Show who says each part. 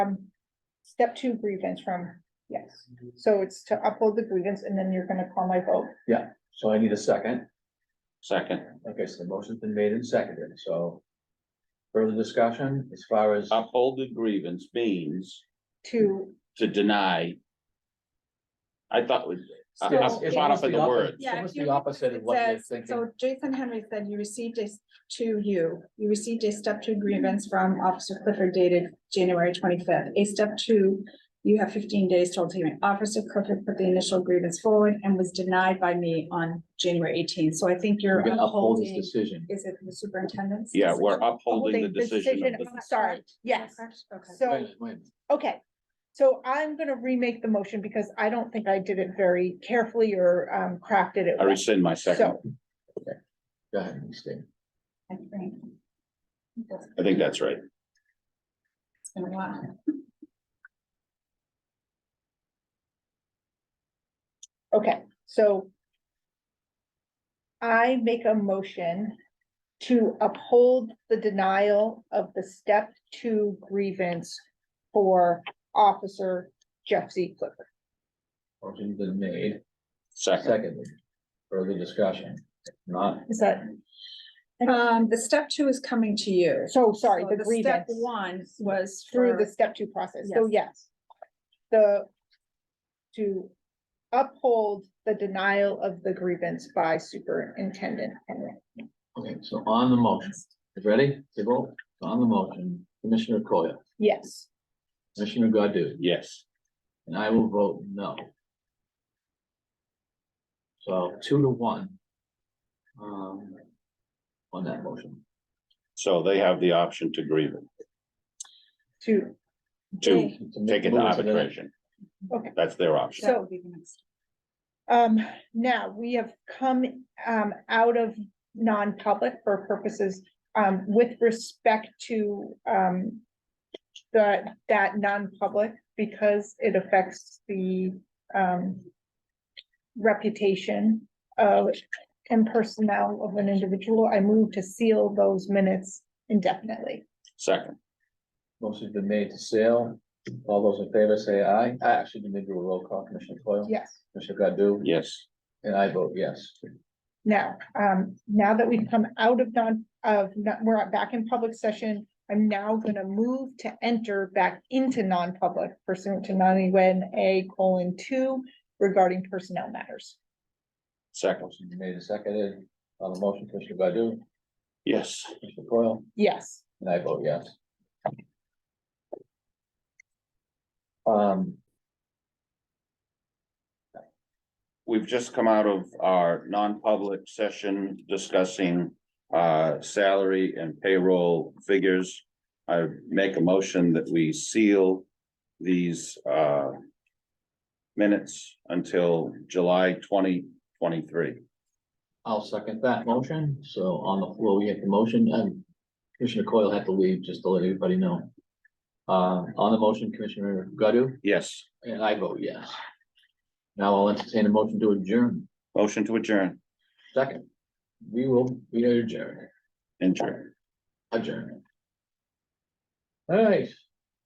Speaker 1: um, step two grievance from, yes. So it's to upload the grievance and then you're gonna call my vote.
Speaker 2: So I need a second.
Speaker 3: Second,
Speaker 2: Okay, so the motion's been made and seconded, so. Further discussion as far as,
Speaker 3: Uh, upholding grievance means
Speaker 1: To,
Speaker 3: to deny. I thought we, I-
Speaker 2: Yes,
Speaker 3: I'm
Speaker 2: it's
Speaker 3: caught
Speaker 2: almost
Speaker 3: up in the
Speaker 2: the
Speaker 3: words.
Speaker 2: Yeah,
Speaker 4: Yeah,
Speaker 2: Almost
Speaker 4: if you
Speaker 2: the
Speaker 4: look,
Speaker 2: opposite of
Speaker 4: it
Speaker 2: what you're
Speaker 4: says-
Speaker 2: thinking.
Speaker 4: So Jason Henry said you received a, s- to you, you received a step two grievance from Officer Clifford dated January twenty-fifth. A step two, you have fifteen days to obtain. Officer Clifford put the initial grievance forward and was denied by me on January eighteenth. So I think you're
Speaker 2: we're gonna uphold this
Speaker 4: upholding,
Speaker 2: decision.
Speaker 4: is it the superintendent's?
Speaker 3: Yeah, we're upholding the
Speaker 1: Upholding the
Speaker 3: decision
Speaker 1: decision
Speaker 3: of the,
Speaker 1: I'm sorry, yes.
Speaker 4: Okay.
Speaker 2: Wait a
Speaker 1: so,
Speaker 2: minute, wait a minute.
Speaker 1: okay. So I'm gonna remake the motion because I don't think I did it very carefully or um crafted it.
Speaker 3: I
Speaker 1: well.
Speaker 3: rescind my second.
Speaker 1: So,
Speaker 2: Go ahead, Ms. Dane.
Speaker 4: I think.
Speaker 3: I think that's right.
Speaker 4: It's been a while.
Speaker 1: okay, so. I make a motion to uphold the denial of the step two grievance for Officer Jeff Z. Clifford.
Speaker 2: Motion's been made,
Speaker 3: Second,
Speaker 2: seconded. Further discussion, not,
Speaker 1: Is that,
Speaker 4: Um, the step two is coming to you.
Speaker 1: so sorry,
Speaker 4: So
Speaker 1: the
Speaker 4: Step
Speaker 1: grievance.
Speaker 4: one was
Speaker 1: through the
Speaker 4: for-
Speaker 1: step two process, so yes. The, to uphold the denial of the grievance by superintendent. Henry.
Speaker 2: okay, so on the motion, ready, to vote, on the motion, Commissioner Coyle,
Speaker 1: Yes,
Speaker 2: Commissioner Godu,
Speaker 3: yes,
Speaker 2: and I will vote no. So two to one. Um, on that motion,
Speaker 3: so they have the option to grieve it,
Speaker 1: to,
Speaker 3: to
Speaker 2: To
Speaker 3: take it to
Speaker 2: move to the-
Speaker 3: arbitration.
Speaker 1: Okay.
Speaker 3: That's their option.
Speaker 4: That would be the next.
Speaker 1: um, now, we have come, um, out of non-public for purposes, um, with respect to, um, the, that non-public, because it affects the, um, reputation of, and personnel of an individual, I move to seal those minutes indefinitely.
Speaker 3: Second,
Speaker 2: Motion's been made to sale. All those in favor say aye. I actually need to do a roll call, Commissioner Coyle.
Speaker 1: Yes.
Speaker 2: Commissioner Godu?
Speaker 3: yes,
Speaker 2: And I vote yes.
Speaker 1: Now, um, now that we've come out of non, of, not- we're back in public session, I'm now gonna move to enter back into non-public pursuant to ninety-one A colon two regarding personnel matters.
Speaker 3: second,
Speaker 2: Motion's been made and seconded. On the motion, Commissioner Godu,
Speaker 3: yes.
Speaker 2: Commissioner Coyle,
Speaker 1: Yes,
Speaker 2: and I vote yes. Um,
Speaker 3: We've just come out of our non-public session discussing uh salary and payroll figures. I make a motion that we seal these uh minutes until July twenty twenty-three.
Speaker 2: I'll second that motion. So on the floor, we have the motion and Commissioner Coyle had to leave, just to let everybody know. Uh, on the motion, Commissioner Godu,
Speaker 3: Yes,
Speaker 2: and I vote yes. Now I'll entertain a motion to adjourn.
Speaker 3: motion to adjourn,
Speaker 2: Second, we will, we adjourn,
Speaker 3: adjourn.
Speaker 2: adjourn. All right.